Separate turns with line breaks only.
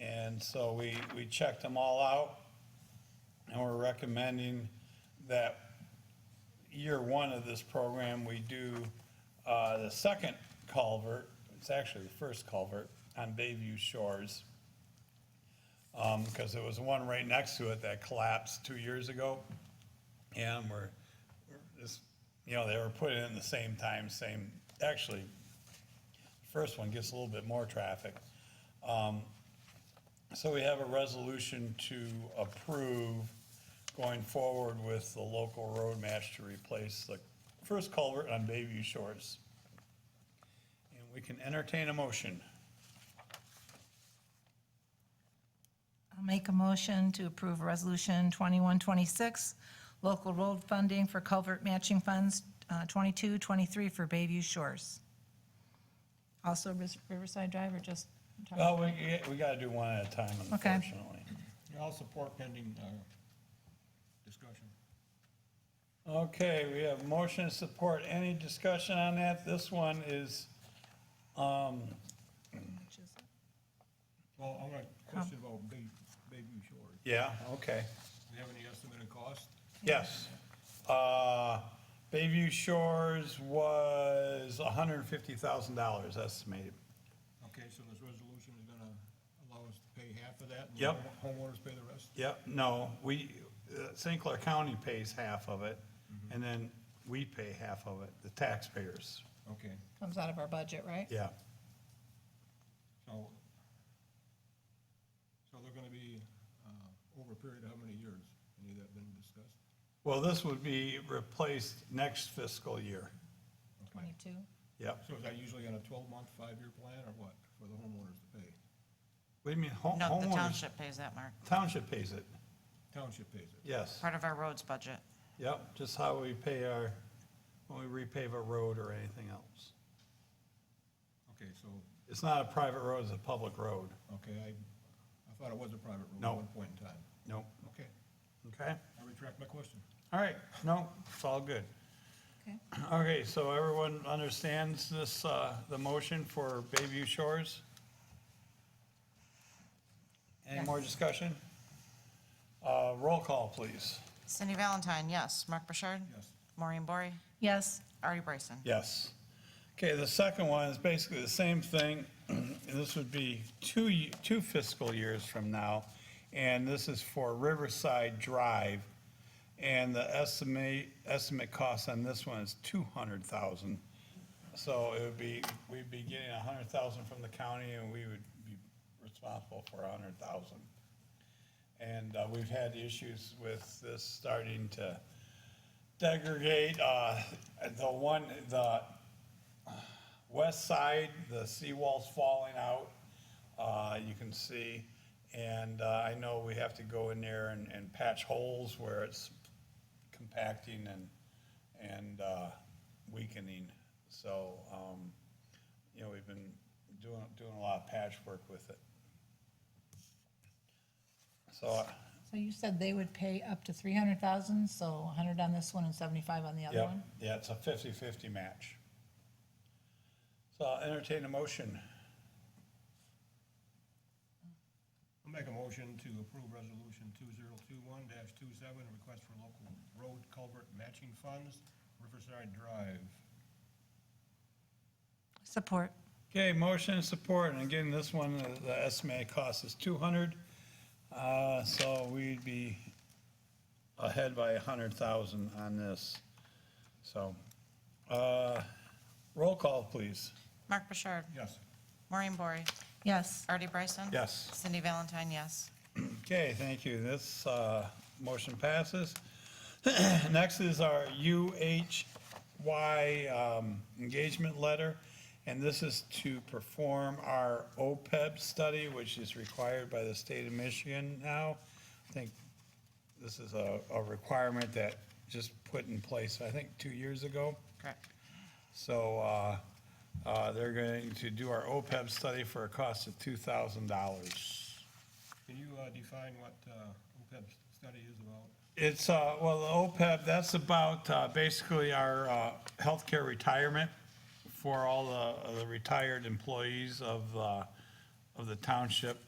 And so we, we checked them all out, and we're recommending that year one of this program, we do uh, the second culvert, it's actually the first culvert, on Bayview Shores. Because there was one right next to it that collapsed two years ago. And we're, we're just, you know, they were put in the same time, same, actually, first one gets a little bit more traffic. So we have a resolution to approve going forward with the local road match to replace the first culvert on Bayview Shores. And we can entertain a motion.
I'll make a motion to approve Resolution 2126, local road funding for culvert matching funds, uh, 22, 23 for Bayview Shores. Also Ris- Riverside Drive or just?
Oh, we, we gotta do one at a time
Okay.
unfortunately.
Yeah, I'll support pending, uh, discussion.
Okay, we have motion and support. Any discussion on that? This one is,
Well, I want to question about Bay, Bayview Shores.
yeah, okay.
Do you have any estimate of cost?
Yes. Uh, Bayview Shores was hundred and fifty thousand dollars estimated.
Okay, so this resolution is gonna allow us to pay half of that? and the
Yep.
home- Homeowners pay the rest?
Yep, no, we, uh, St. Clair County pays half of it, and then we pay half of it, the taxpayers,
Okay,
Comes out of our budget, right?
yeah.
so, so they're gonna be, uh, over a period of how many years? Any of that been discussed?
Well, this would be replaced next fiscal year,
22.
yep.
So is that usually on a twelve-month, five-year plan, or what, for the homeowners to pay?
What do you mean, ho-
No, the
homeowners?
township pays that, Mark.
Township pays it,
Township pays it?
yes,
Part of our roads budget.
yep, just how we pay our, when we repave a road or anything else.
Okay, so,
It's not a private road, it's a public road,
okay, I, I thought it was a private road
No.
at one point in time.
nope,
Okay,
okay?
I retract my question.
All right, no, it's all good.
Okay.
Okay, so everyone understands this, uh, the motion for Bayview Shores? Any more discussion? Uh, roll call, please.
Cindy Valentine, yes. Mark Burchard?
Yes.
Maureen Bory?
Yes,
Artie Bryson?
Yes. Okay, the second one is basically the same thing. And This would be two, ye- two fiscal years from now. And this is for Riverside Drive. And the estimate, estimate cost on this one is two hundred thousand. So it would be, we'd be getting a hundred thousand from the county and we would be responsible for a hundred thousand. And uh, we've had issues with this starting to degradate, uh, the one, the west side, the seawall's falling out, uh, you can see. And, uh, I know we have to go in there and, and patch holes where it's compacting and, and, uh, weakening. So, um, you know, we've been doing, doing a lot of patchwork with it. So, uh,
so you said they would pay up to 300,000, so 100 on this one and 75 on the other
Yep,
one?
yeah, it's a 50-50 match. So I'll entertain a motion.
I'll make a motion to approve resolution two zero two one 27 request for local road culvert matching funds, Riverside Drive.
Support.
Okay, motion and support, and again, this one, uh, the estimated cost is 200, uh, so we'd be ahead by 100,000 on this. So, uh, roll call, please.
Mark Burchard?
Yes.
Maureen Bory?
Yes,
Artie Bryson?
Yes.
Cindy Valentine, yes.
Okay, thank you. This uh, motion passes. Next is our UHY um, engagement letter, and this is to perform our OPEB study, which is required by the state of Michigan now. I think this is a a requirement that just put in place, I think, two years ago.
Correct.
So uh, uh, they're going to do our OPEB study for a cost of $2,000.
Can you uh, define what uh, OPEB study is about?
It's, uh, well, the OPEB, that's about, uh, basically our, uh, healthcare retirement for all the, the retired employees of, uh, of the township.